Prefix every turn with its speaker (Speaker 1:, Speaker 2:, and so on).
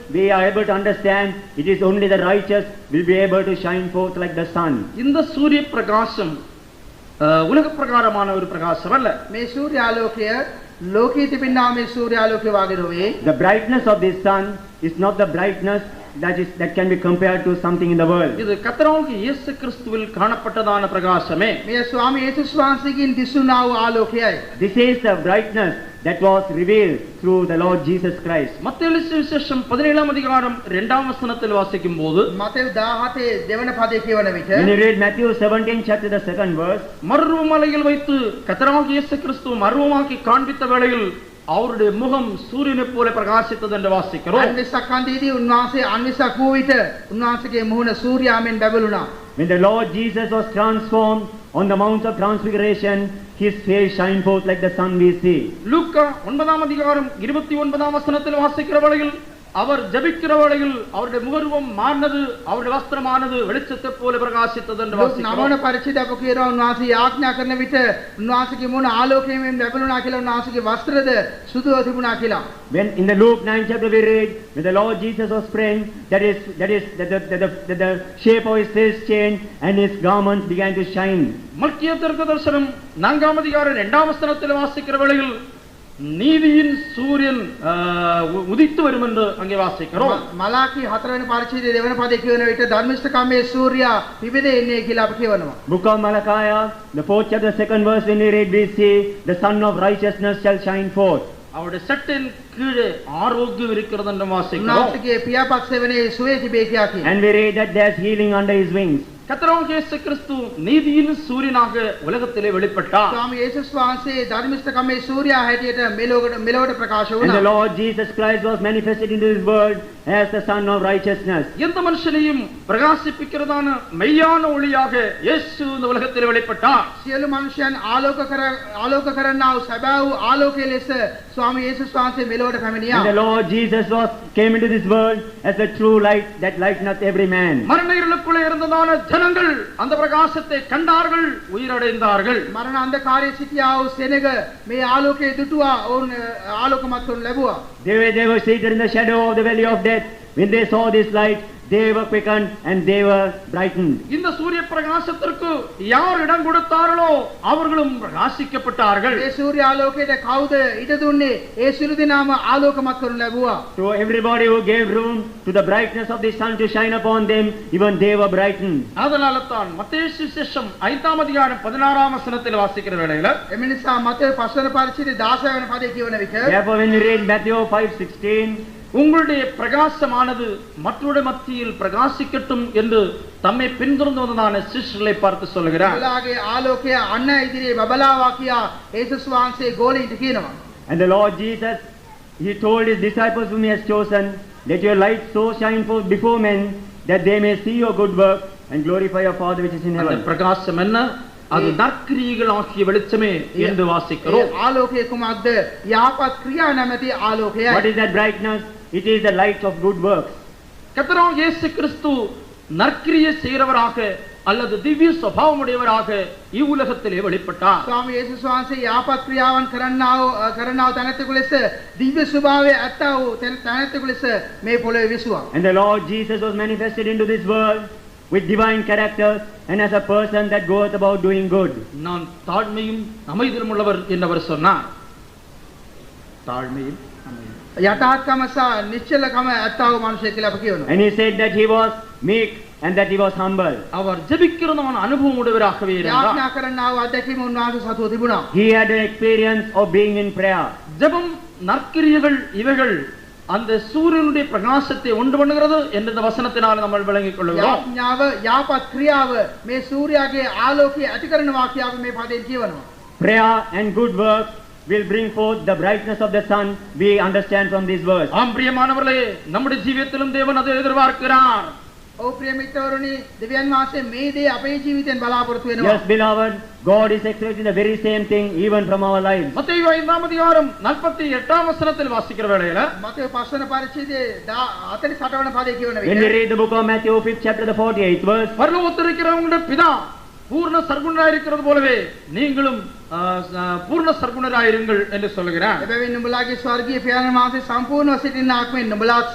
Speaker 1: we are able to understand it is only the righteous will be able to shine forth like the sun.
Speaker 2: இந்த சூரிய பிரகாசம் உலக பிரகாரமான ஒரு பிரகாசம் அல்ல
Speaker 3: මේ සූර්යාලෝකය ලෝකී තිබෙනා මේ සූර්යාලෝකය වාගේ නොවේ.
Speaker 1: The brightness of this sun is not the brightness that is, that can be compared to something in the world.
Speaker 2: இது கத்தராவுக்கு இயேசு கிறிஸ்துவில் காணப்பட்டதான பிரகாசமே
Speaker 3: මෙය ස්වාමී යේසුස් වහන්සේගෙන් දිස්ුණා වූ ආලෝකයයි.
Speaker 1: This is the brightness that was revealed through the Lord Jesus Christ.
Speaker 2: மத்திய விசேஷம் பதினேழாம் அதிகாரம் இரண்டாம் வசனத்தில் வாசிக்கும் போது
Speaker 3: මතෙව් 17 දෙවන පදේ කියවන
Speaker 1: When you
Speaker 3: විට
Speaker 1: read Matthew 17, chapter the second verse,
Speaker 2: மர்வமலையில் வைத்து கத்தராக இயேசு கிறிஸ்துவ மர்வமாக்கி காண்பித்த வேளையில் அவருடைய முகம் சூரியனைப் போல பிரகாசித்தது என்று வாசிக்கிறோம்
Speaker 3: අන්විසක් කන්දේදී උන්වහන්සේ අන්විසක් වූ විට උන්වහන්සේගේ මුහුණ සූර්යාමෙන් බැබළුණා.
Speaker 1: when the Lord Jesus was transformed on the Mount of Transfiguration, his face shined forth like the sun we see.
Speaker 2: லூக்கா ஒன்பதாம் அதிகாரம் இருபத்தி ஒன்பதாம் வசனத்தில் வாசிக்கிற வேளையில் அவர் ஜபிக்கிற வேளையில் அவருடைய முகர்வம் மாறினது அவருடைய வஸ்திரமானது வெளிச்சத்தைப் போல பிரகாசித்தது என்று
Speaker 3: ලොක් නමන
Speaker 2: வாசிக்கிறோம்
Speaker 3: පරිචිතක කියනවා උන්වහන්සේ යාඥා කරන විට උන්වහන්සේගේ මුහුණ ආලෝකයෙන් බැබළුණා කියලා උන්වහන්සේගේ වස්ත්‍රද සුදුව තිබුණා කියලා.
Speaker 1: When in the Luke 9 chapter we read, when the Lord Jesus was praying, that is, that is, that the, that the, that the shape of his face changed and his garments began to shine.
Speaker 2: மத்திய தீர்க்க தரிசனம் நான்காம் அதிகாரம் இரண்டாம் வசனத்தில் வாசிக்கிற வேளையில் நீதியின் சூரியன் ஆஹ், உ- உதித்து வரும் என்று அங்கே வாசிக்கிறோம்
Speaker 3: ම- මලාකී හතරවෙනි පරිච්ඡේදයේ දෙවන පදේ කියවන විට ධර්මිෂ්ඨකම්මේ සූර්යා පිබිදෙන්නේ කියලා අපි කියවනවා.
Speaker 1: Book of Malachi, the fourth chapter, second verse, when we read, we see, the sun of righteousness shall shine forth.
Speaker 2: அவருடைய சட்டையின் கீழே ஆரோக்கியம் இருக்கிறது என்று வாசிக்கிறோம்
Speaker 3: උන්වහන්සේගේ පියාපස්සේ වනේ සුවේ තිබේ කියා කියනවා.
Speaker 1: And we read that there's healing under his wings.
Speaker 2: கத்தராகிய இயேசு கிறிஸ்து நீதியின் சூரியனாக உலகத்திலே வெளிப்பட்டார்
Speaker 3: ස්වාමී යේසුස් වහන්සේ ධර්මිෂ්ඨකම්මේ සූර්යා හැටියට මෙලොවට මෙලොවට ප්‍රකාශ
Speaker 1: And the
Speaker 3: වුණා.
Speaker 1: Lord Jesus Christ was manifested into this world as the Son of righteousness.
Speaker 2: எந்த மனுஷனையும் பிரகாசிப்பிக்கிறதான மெய்யான ஒளியாக இயேசு இந்த உலகத்திலே வெளிப்பட்டார்
Speaker 3: සියලු මනුෂ්‍යයන් ආලෝක කර ආලෝක කරන්නා වූ සැබෑ වූ ආලෝකයේ ලෙස ස්වාමී යේසුස් වහන්සේ මෙලොවට
Speaker 1: And the
Speaker 3: පැමිණියා.
Speaker 1: Lord Jesus was came into this world as the true light that lighteneth every man.
Speaker 2: மரண இருளுக்குள்ளே இருந்ததான ஜனங்கள் அந்த பிரகாசத்தை கண்டார்கள் உயிரடைந்தார்கள்
Speaker 3: මරණ අන්ධකාරයේ සිටියා වූ සෙනග මේ ආලෝකයේ දුටුවා ඔවුන් අ, ආලෝකමත් වනු ලැබුවා.
Speaker 1: They were, they were seated in the shadow of the valley of death. When they saw this light, they were quickened and they were brightened.
Speaker 2: இந்த சூரிய பிரகாசத்திற்கு யார் இடம் கொடுத்தார்களோ அவர்களும் பிரகாசிக்கப்பட்டார்கள்
Speaker 3: ඒ සූර්යාලෝකයට කවුද ඉඩ දුන්නේ? ඒ සිළු දිනාම ආලෝකමත් කරනු ලැබුවා.
Speaker 1: To everybody who gave room to the brightness of the sun to shine upon them, even they were brightened.
Speaker 2: அதனால தான் மத்திய சுசேஷம் ஐந்தாம் அதிகாரம் பதினாறாம் வசனத்தில் வாசிக்கிற வேளையில
Speaker 3: එම නිසා මතේ පස්වන පරිච්ඡේදයේ 16 වෙනි පදේ කියවන විට
Speaker 1: Therefore, when we read Matthew 5:16,
Speaker 2: உங்களுடைய பிரகாசமானது மற்றொரு மத்தியில் பிரகாசிக்கட்டும் என்று தம்மை பின்தொடர்ந்து வந்ததான சிஷ்டர்களை பார்த்து சொல்கிறார்
Speaker 3: ඔයාලගේ ආලෝකය අන්න ඉදිරියේ බබලාවා කියා යේසුස් වහන්සේ ගෝලීන්ට කියනවා.
Speaker 1: And the Lord Jesus, he told his disciples whom he has chosen, let your light so shine forth before men that they may see your good work and glorify your Father which is in
Speaker 2: அந்த
Speaker 1: heaven.
Speaker 2: பிரகாசம் என்ன அது நற்கிரியைகள் ஆகிய வெளிச்சமே என்று
Speaker 3: ඒ
Speaker 2: வாசிக்கிறோம்
Speaker 3: ආලෝකය කුමක්ද? යහපත් ක්‍රියා නැමැති
Speaker 1: What
Speaker 3: ආලෝකයයි.
Speaker 1: is that brightness? It is the light of good works.
Speaker 2: கத்தராம் இயேசு கிறிஸ்து நற்கிரியை செய்கிறவராக அல்லது திவ்ய சுபாவமுடையவராக இவ்வுலகத்திலே வெளிப்பட்டார்
Speaker 3: ස්වාමී යේසුස් වහන්සේ යහපත් ක්‍රියාවන් කරන්නා වූ අ, කරන්නා වූ තැනැත්තෙකු ලෙස දිව්‍ය ස්වභාවය ඇත්තා වූ තැන- තැනැත්තෙකු ලෙස මේ පොළොවේ විසුවා.
Speaker 1: And the Lord Jesus was manifested into this world with divine character and as a person that goeth about doing good.
Speaker 2: நான் தாழ்மையும் அமைதியும் உள்ளவர் என்று அவர் சொன்னார் தாழ்மையும் அமைதியும்.
Speaker 3: යථාත්කම සහ නිශ්චලකම ඇත්තව මනුෂය කියලා අපි කියනවා.
Speaker 1: And he said that he was meek and that he was humble.
Speaker 2: அவர் ஜெபிக்கிறதான அனுபவம் உடையவராகவே இருந்தார்
Speaker 3: යාඥා කරන්නා වූ අධ්‍යක්ෂකම උන්වහන්සේ සතුව තිබුණා.
Speaker 1: He had an experience of being in prayer.
Speaker 2: ஜெபம் நற்கிரியைகள் இவைகள் அந்த சூரியனுடைய பிரகாசத்தை உண்டு பண்ணுகிறது என்ற இந்த வசனத்தினால் நம்ம விளங்கிக் கொள்கிறோம்
Speaker 3: යාඥාව යාපත් ක්‍රියාව මේ සූර්යාගේ ආලෝකය ඇති කරන වාක්‍යාව මේ පදයෙන් කියවනවා.
Speaker 1: Prayer and good works will bring forth the brightness of the sun, we understand from this verse.
Speaker 2: ஆம் பிரியமானவர்களே நம்முடைய ஜீவியத்திலும் தேவன் அதை எதிர்பார்க்கிறார்
Speaker 3: ඔව් ප්‍රිය මිත්‍රවරුනි, දෙවියන් වහන්සේ මේ දේ අපේ ජීවිතෙන් බලාපොරොත්තු වෙනවා.
Speaker 1: Yes, beloved, God is expecting the very same thing even from our lives.
Speaker 2: மத்தேயு ஐந்தாம் அதிகாரம் நாற்பத்தி எட்டாம் வசனத்தில் வாசிக்கிற வேளையில
Speaker 3: මතේ පස්වන පරිච්ඡේදයේ 48 වන පදයේ කියවන
Speaker 1: When we
Speaker 3: විට
Speaker 1: read the book of Matthew, fifth chapter, the forty-eighth verse,
Speaker 2: பரலோகத்திருக்கிறவங்களுடைய பிதா பூர்ண சர்க்குணராக இருக்கிறது போலவே நீங்களும் ஆ, ச- பூர்ண சர்க்குணராக இருங்கள் என்று சொல்லுகிறார்
Speaker 3: එබැවින් නුඹලාගේ ස්වර්ගීය පියාණන් වහන්සේ සම්පූර්ණව සිටින්නාක් මෙන් නුඹලාත්